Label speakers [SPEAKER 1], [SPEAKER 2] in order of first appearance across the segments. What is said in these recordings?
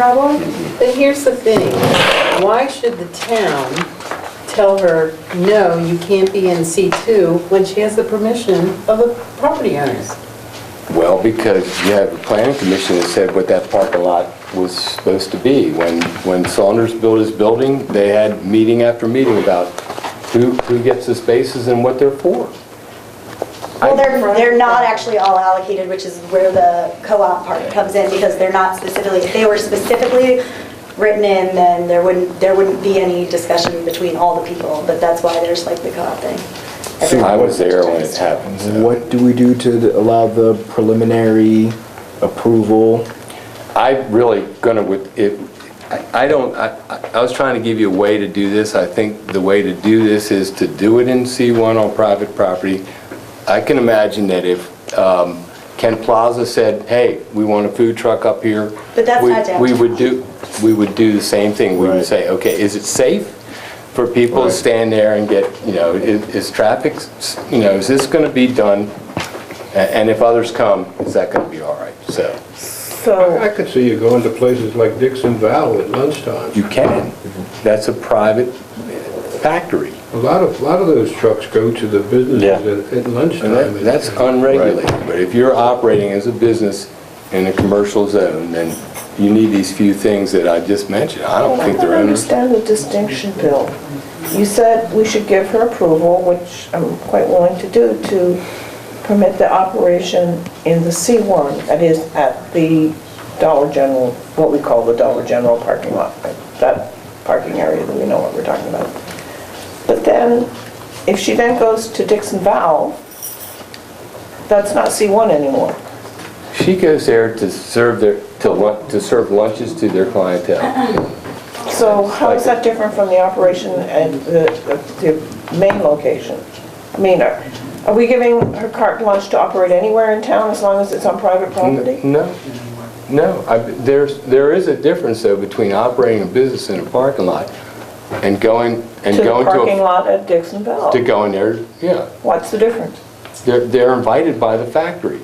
[SPEAKER 1] problem? But here's the thing, why should the town tell her, no, you can't be in C2 when she has the permission of the property owners?
[SPEAKER 2] Well, because you have a planning commission that said what that parking lot was supposed to be. When, when Saunders built his building, they had meeting after meeting about who, who gets the spaces and what they're for.
[SPEAKER 3] Well, they're, they're not actually all allocated, which is where the co-op part comes in, because they're not specifically, if they were specifically written in, then there wouldn't, there wouldn't be any discussion between all the people, but that's why there's like the co-op thing.
[SPEAKER 2] I was there when it happened, so.
[SPEAKER 4] What do we do to allow the preliminary approval?
[SPEAKER 2] I really gonna, with, it, I I don't, I, I- I was trying to give you a way to do this. I think the way to do this is to do it in C1 on private property. I can imagine that if um, Ken Plaza said, hey, we want a food truck up here.
[SPEAKER 3] But that's
[SPEAKER 2] we-
[SPEAKER 3] not downtown.
[SPEAKER 2] We would do, we would do the same thing. We would
[SPEAKER 4] Right.
[SPEAKER 2] say, okay, is it safe for people to
[SPEAKER 4] Right.
[SPEAKER 2] stand there and get, you know, is, is traffic, s- you know, is this gonna be done? A- And if others come, is that gonna be all right? So,
[SPEAKER 5] I could see you going to places like Dixon Valley at lunchtime.
[SPEAKER 2] You can. That's a private factory.
[SPEAKER 5] A lot of, a lot of those trucks go to the businesses at- at
[SPEAKER 2] And
[SPEAKER 5] lunchtime.
[SPEAKER 2] that- that's unregulated. But if you're operating as a business in a commercial zone, then you need these few things that I just mentioned. I don't
[SPEAKER 6] I
[SPEAKER 2] think
[SPEAKER 6] don't
[SPEAKER 2] they're under...
[SPEAKER 6] understand the distinction, Bill. You said we should give her approval, which I'm quite willing to do, to permit the operation in the C1, that is at the Dollar General, what we call the Dollar General parking lot, that parking area that we know what we're talking about. But then, if she then goes to Dixon Valve, that's not C1 anymore.
[SPEAKER 2] She goes there to serve their, to lun- to serve lunches to their clientele.
[SPEAKER 6] So how is that different from the operation at the, the main location? I mean, are are we giving her carte blanche to operate anywhere in town as long as it's on private property?
[SPEAKER 2] No, no. I- There's, there is a difference though between operating a business in a parking lot and going, and
[SPEAKER 6] To the
[SPEAKER 2] going to... a-
[SPEAKER 6] parking lot at Dixonville?
[SPEAKER 2] To going there, yeah.
[SPEAKER 6] What's the difference?
[SPEAKER 2] They're, they're invited by the factory.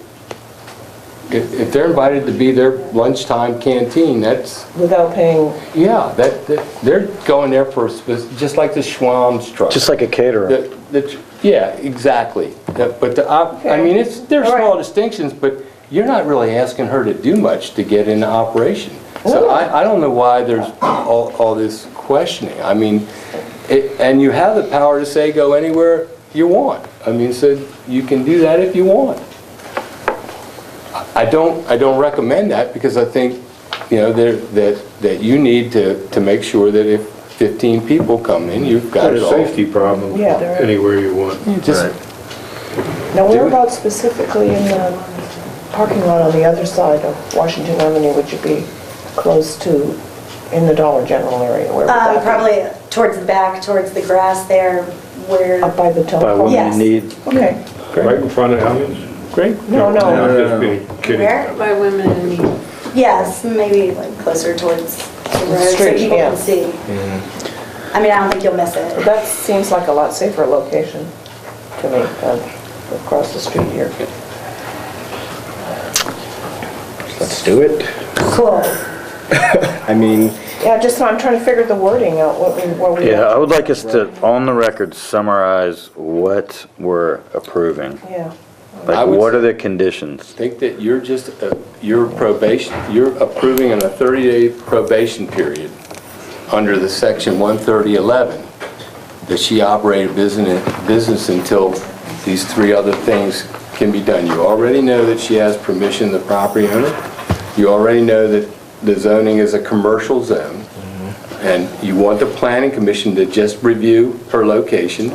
[SPEAKER 2] If, if they're invited to be their lunchtime canteen, that's,
[SPEAKER 6] Without paying,
[SPEAKER 2] yeah, that, that- they're going there for, a spec- just like the Schwam's truck.
[SPEAKER 4] Just like a caterer.
[SPEAKER 2] The- the tr- Yeah, exactly. That- But the, op- I
[SPEAKER 6] Okay.
[SPEAKER 2] mean, it's, there's
[SPEAKER 6] All
[SPEAKER 2] small
[SPEAKER 6] right.
[SPEAKER 2] distinctions, but you're not really asking her to do much to get into operation.
[SPEAKER 6] Oh.
[SPEAKER 2] So I, I don't know why there's all, all this questioning. I mean, it- and you have the power to say, go anywhere you want. I mean, so you can do that if you want. I don't, I don't recommend that because I think, you know, there- that, that you need to, to make sure that if 15 people come in, you've got
[SPEAKER 5] Got
[SPEAKER 2] it
[SPEAKER 5] a
[SPEAKER 2] all.
[SPEAKER 5] safety problem
[SPEAKER 6] Yeah, there is.
[SPEAKER 5] anywhere you want.
[SPEAKER 2] Just
[SPEAKER 6] now
[SPEAKER 2] Do
[SPEAKER 6] where
[SPEAKER 2] it.
[SPEAKER 6] about specifically in the parking lot on the other side of Washington Avenue would you be close to in the Dollar General area? Where would
[SPEAKER 3] Um,
[SPEAKER 6] that be?
[SPEAKER 3] Probably towards the back, towards the grass there, where,
[SPEAKER 6] Up by the
[SPEAKER 4] By
[SPEAKER 6] telephone?
[SPEAKER 4] what
[SPEAKER 3] Yes.
[SPEAKER 4] you need.
[SPEAKER 6] Okay,
[SPEAKER 5] Right in front of Allen's?
[SPEAKER 2] Great.
[SPEAKER 6] no, no.
[SPEAKER 5] I'm just being kidding.
[SPEAKER 3] where?
[SPEAKER 1] By women in need.
[SPEAKER 3] Yes, maybe like closer towards the road, so
[SPEAKER 6] street,
[SPEAKER 3] people
[SPEAKER 6] yeah.
[SPEAKER 3] can see. I mean, I don't think you'll miss it.
[SPEAKER 6] That seems like a lot safer location to me than across the street here.
[SPEAKER 4] Let's do it.
[SPEAKER 3] Cool.
[SPEAKER 4] I mean,
[SPEAKER 6] Yeah, just, I'm trying to figure the wording out, what we, what we.
[SPEAKER 7] Yeah, I would like us to, on the record, summarize what we're approving.
[SPEAKER 6] Yeah.
[SPEAKER 2] I
[SPEAKER 7] Like,
[SPEAKER 2] would
[SPEAKER 7] what
[SPEAKER 2] s-
[SPEAKER 7] are the conditions?
[SPEAKER 2] Think that you're just, uh, you're probation, you're approving on a 30-day probation period under the section 13011, that she operated business, business until these three other things can be done. You already know that she has permission of the property owner. You already know that the zoning is a commercial zone. And you want the planning commission to just review her location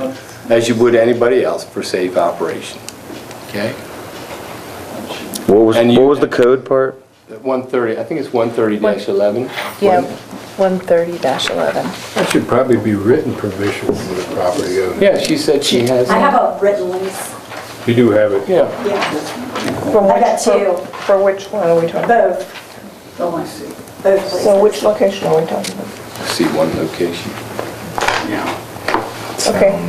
[SPEAKER 2] as you would anybody else for safe operation. Okay?
[SPEAKER 7] What was,
[SPEAKER 2] And you-
[SPEAKER 7] what was the code part?
[SPEAKER 2] 130, I think it's 130-11.
[SPEAKER 8] Yeah, 130-11.
[SPEAKER 5] That should probably be written permission from the property owner.
[SPEAKER 2] Yeah, she said she has.
[SPEAKER 3] I have a written lease,
[SPEAKER 5] You do have it.
[SPEAKER 2] Yeah,
[SPEAKER 3] yeah,
[SPEAKER 6] For
[SPEAKER 3] I
[SPEAKER 6] which-
[SPEAKER 3] got two.
[SPEAKER 6] for- For which one are we talking about?
[SPEAKER 3] both. Both
[SPEAKER 6] So
[SPEAKER 3] places.
[SPEAKER 6] which location are we talking about?
[SPEAKER 2] see one location.
[SPEAKER 6] Okay,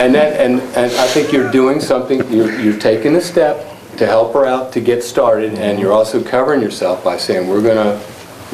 [SPEAKER 2] And that, and, and I think you're doing something, you're, you're taking a step to help her out to get started, and you're also covering yourself by saying, we're gonna